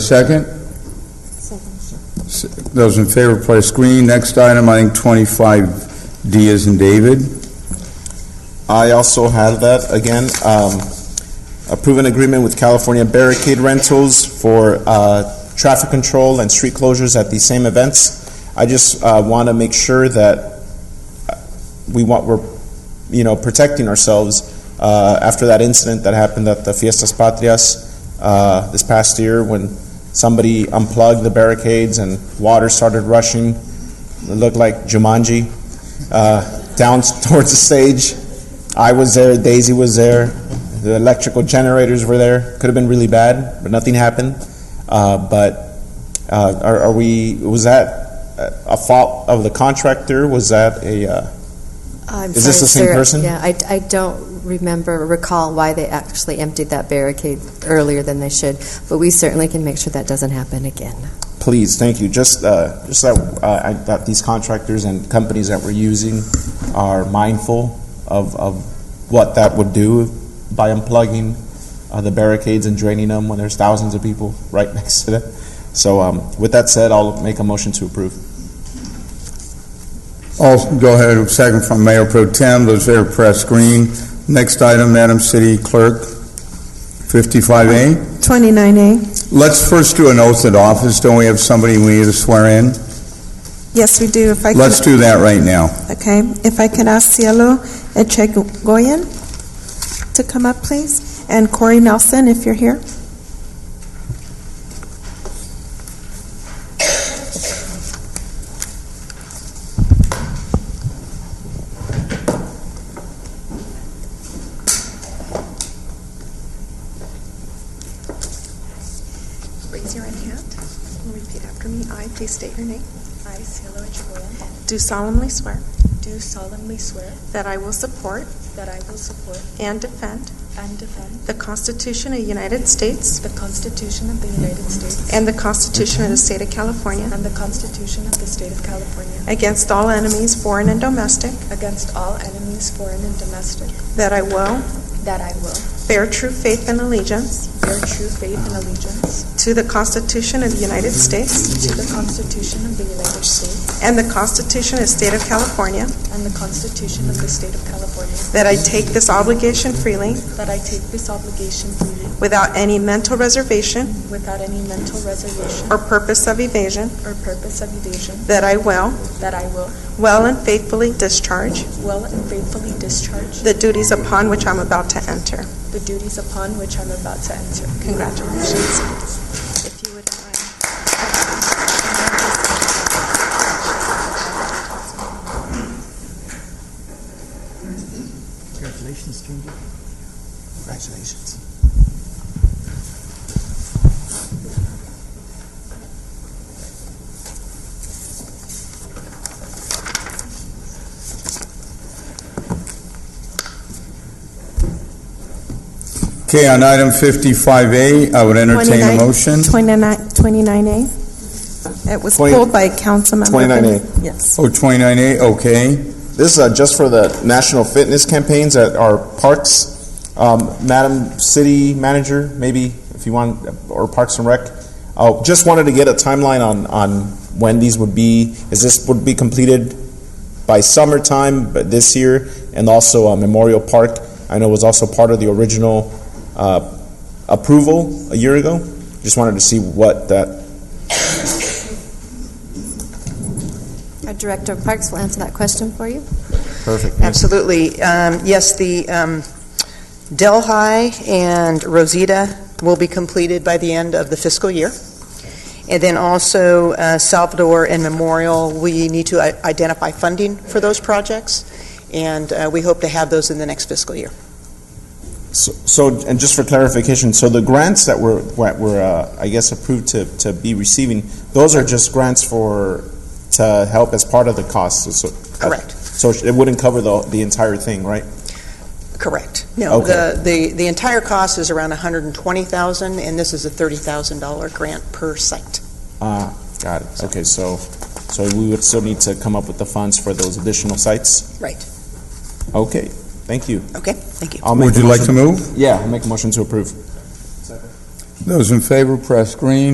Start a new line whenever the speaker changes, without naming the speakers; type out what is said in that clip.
second? Second. Those in favor, press green. Next item, I think 25D is in David.
I also have that again. Um, approve an agreement with California Barricade Rentals for uh, traffic control and street closures at these same events. I just uh, want to make sure that uh, we want we're you know protecting ourselves uh, after that incident that happened at the Fiestas Patrias uh, this past year when somebody unplugged the barricades and water started rushing. It looked like Jumanji uh, down towards the stage. I was there, Daisy was there, the electrical generators were there. Could have been really bad, but nothing happened. Uh, but uh, are, are we? Was that uh, a- a fault of the contractor? Was that a? Uh,
I'm
Is this
sorry,
the same
sir.
person?
Yeah, I, I don't remember, recall why they actually emptied that barricade earlier than they should, but we certainly can make sure that doesn't happen again.
please, thank you. Just, uh, just that uh, I, that these contractors and companies that we're using are mindful of, of what that would do by unplugging uh, the barricades and draining them when there's thousands of people right next to them. So, um, with that said, I'll make a motion to approve.
Also, go ahead, second from Mayor Pro Tem. Those in favor, press green. Next item, Madam City Clerk, 55A.
29A.
Let's first do an oath of office. Don't we have somebody we need to swear in?
Yes, we do. If I could,
Let's do that right now.
okay, if I could ask Cielo Echegoyen to come up, please, and Corey Nelson, if you're here.
Raise your right hand and repeat after me. I, please state your name.
I, Cielo Echegoyen,
Do solemnly swear
do solemnly swear
that I will support
that I will support
and defend
and defend
the Constitution of the United States
the Constitution of the United States
and the Constitution of the State of California
and the Constitution of the State of California
against all enemies, foreign and domestic,
against all enemies, foreign and domestic,
that I will
that I will
bear true faith and allegiance
bear true faith and allegiance
to the Constitution of the United States
to the Constitution of the United States
and the Constitution of the State of California,
and the Constitution of the State of California,
That I take this obligation freely,
that I take this obligation freely
without any mental reservation
without any mental reservation
or purpose of evasion.
or purpose of evasion,
That I will,
that I will
well and faithfully discharge
well and faithfully discharge
the duties upon which I'm about to enter.
the duties upon which I'm about to enter.
Congratulations.
If you would uh, mind.
Congratulations, stranger.
Congratulations.
Okay, on item 55A, I would entertain a
29
motion.
29 29A. It was
Twenty-
pulled by Councilmember.
29A.
Benny. Yes.
Oh, 29A, okay.
This is uh, just for the national fitness campaigns at our parks. Um, Madam City Manager, maybe if you want, or Parks and Rec. Uh, just wanted to get a timeline on, on when these would be. Is this would be completed by summertime but this year, and also uh, Memorial Park. I know was also part of the original uh, approval a year ago. Just wanted to see what that.
Our Uh, Director of Parks will answer that question for you.
Perfect.
Absolutely. Um, Yes, the um, Delhi and Rosita will be completed by the end of the fiscal year. And then also uh, Salvador and Memorial, we need to i- identify funding for those projects, and uh, we hope to have those in the next fiscal year.
So- So, and just for clarification, so the grants that were, that were, uh, I guess, approved to, to be receiving, those are just grants for, to help as part of the cost, so.
Correct.
So it wouldn't cover the, the entire thing, right?
Correct. No,
Okay.
the the the entire cost is around $120,000, and this is a $30,000 grant per site.
Ah, got it. Okay, so, so we would still need to come up with the funds for those additional sites?
Right.
Okay, thank you.
Okay? Thank you.
I'll make
Would
a
you like to
motion-
move?
Yeah, I'll make a motion to approve.
Those in favor, press green.